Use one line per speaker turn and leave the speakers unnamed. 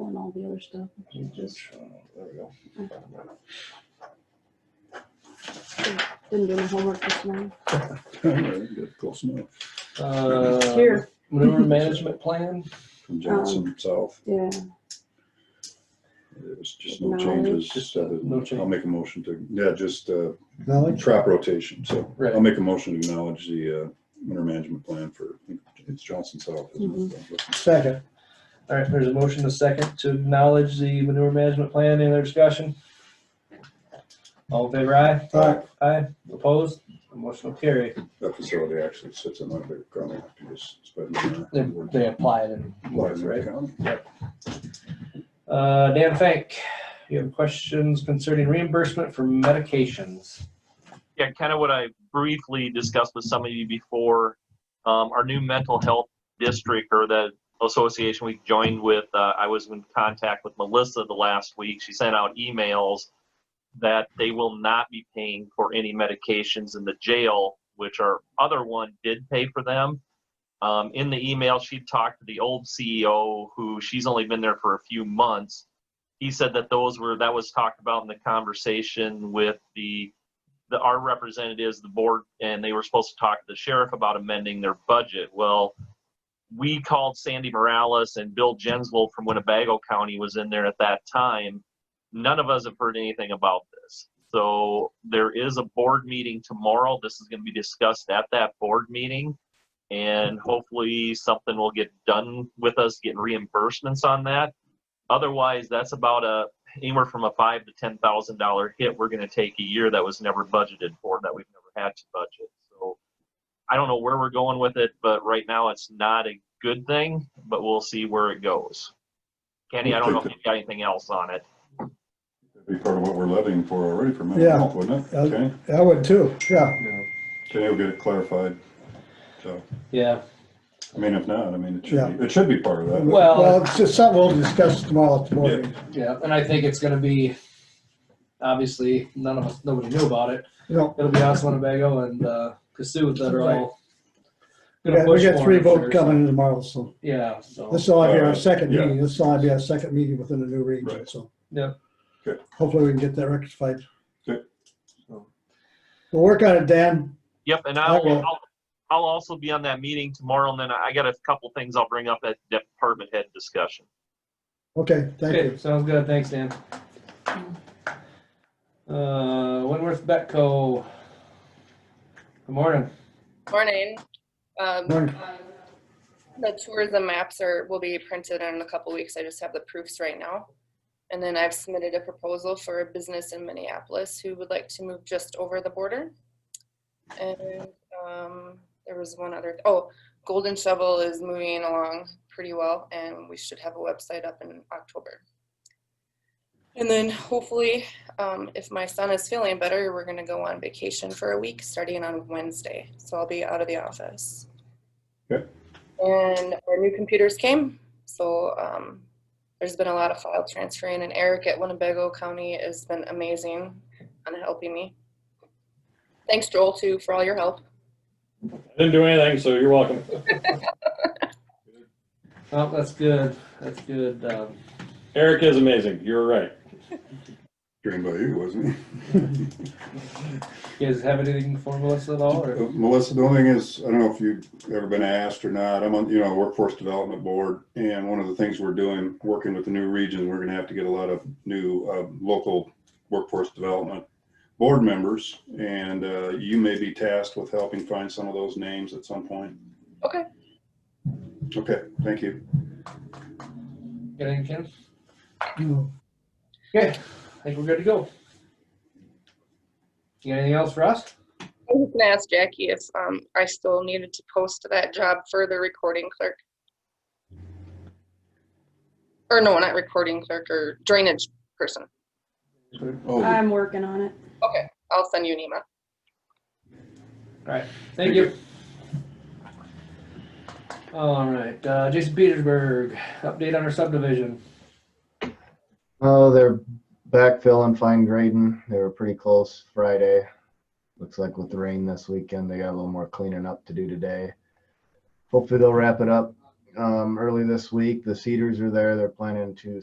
all the other stuff. I can't just,
There we go.
didn't do my homework this morning.
Oh, Good, Close enough.
Uh,
Here,
maneuver management plan,
From Johnson South,
yeah,
there's just no changes.
Just, uh,
other than-
no change.
I'll make a motion to, yeah, just uh,
Knowledge?
trap rotation. So
right?
I'll make a motion to acknowledge the uh, winter management plan for, I think it's Johnson South. isn't it?
Second.
All right, there's a motion, a second, to acknowledge the manure management plan. Any other discussion? All in favor, aye?
Aye.
Aye, opposed? Motion will carry.
That facility actually sits in my big county. after this, it's been, uh,
They,
worked
they apply it. in-
in Washington
right?
County.
Uh, Dan Fank, you have questions concerning reimbursement for medications?
yeah, kind of what I briefly discussed with some of you before. Um, our new mental health district or the association we joined with, uh, I was in contact with Melissa the last week. She sent out emails that they will not be paying for any medications in the jail, which our other one did pay for them. Um, in the email, she talked to the old CEO who she's only been there for a few months. He said that those were, that was talked about in the conversation with the the, our representatives, the board, and they were supposed to talk to the sheriff about amending their budget. Well, we called Sandy Morales and Bill Jenslow from Winnebago County was in there at that time. None of us have heard anything about this. So there is a board meeting tomorrow. This is going to be discussed at that board meeting. And hopefully something will get done with us getting reimbursements on that. Otherwise, that's about a, anywhere from a five to ten thousand dollar hit we're going to take a year that was never budgeted for that we've never had to budget so i don't know where we're going with it but right now it's not a good thing but we'll see where it goes kenny i don't know if you've got anything else on it
That'd Be part of what we're levying for already for mental
Yeah.
health, wouldn't it?
Uh,
Okay,
I would too, yeah.
okay, we'll get it clarified. So,
Yeah,
I mean, if not, I mean, it
Yeah.
should, be- it should be part of that.
Well-
it's just something we'll discuss tomorrow at the board. meeting.
yeah, and I think it's gonna be, obviously, none of us, nobody knew about it.
You know,
It'll be us, Winnebago, and, uh, Cassuth that are all.
we
gonna
got- we
push
got
for
three
it,
votes
sure, so-
coming in tomorrow, so
Yeah, so.
this will be
Uh,
our second
yeah.
meeting, this will be our second meeting within the new region,
Right.
so.
Yeah.
Good.
Hopefully we can get that rectified.
Good.
We'll work on it, Dan.
Yep, and I'll,
Okay.
I'll, I'll also be on that meeting tomorrow, and then I got a couple things I'll bring up at department head discussion.
Okay, thank
Okay,
you.
sounds good, thanks, Dan. Uh, Winworth Betco. Good morning.
Morning. Um,
Morning.
The tourism maps are, will be printed in a couple weeks. I just have the proofs right now. And then I've submitted a proposal for a business in Minneapolis who would like to move just over the border. And um, there was one other, oh, Golden Shovel is moving along pretty well and we should have a website up in October. And then hopefully, um, if my son is feeling better, we're gonna go on vacation for a week starting on Wednesday. So I'll be out of the office.
Okay.
And our new computers came, so um, there's been a lot of file transferring, and Eric at Winnebago County has been amazing on helping me. Thanks, Joel, too, for all your help.
Didn't do anything, so you're welcome.
Oh, that's good, that's good. Um,
Eric is amazing. You're right.
Dreamed by you, wasn't he?
You guys have anything for Melissa at all, or?
Uh, Melissa, the only thing is, I don't know if you've ever been asked or not, I'm on, you know, Workforce Development Board, and one of the things we're doing, working with the new region, we're gonna have to get a lot of new, uh, local workforce development board members, and, uh, you may be tasked with helping find some of those names at some point.
Okay.
Okay, thank you.
Got anything, Ken?
No.
Okay, I think we're good to go. You got anything else for us?
I was gonna ask Jackie if um, I still needed to post that job for the recording clerk. Or no, not recording clerk, or drainage person.
Oh,
I'm working on it.
Okay, I'll send you an email.
Thank you. All right, uh, Jason Petersburg, update on our subdivision.
Oh, they're backfilling, fine grading. They were pretty close Friday. Looks like with the rain this weekend, they got a little more cleaning up to do today. Hopefully, they'll wrap it up um, early this week. The cedars are there. They're planning to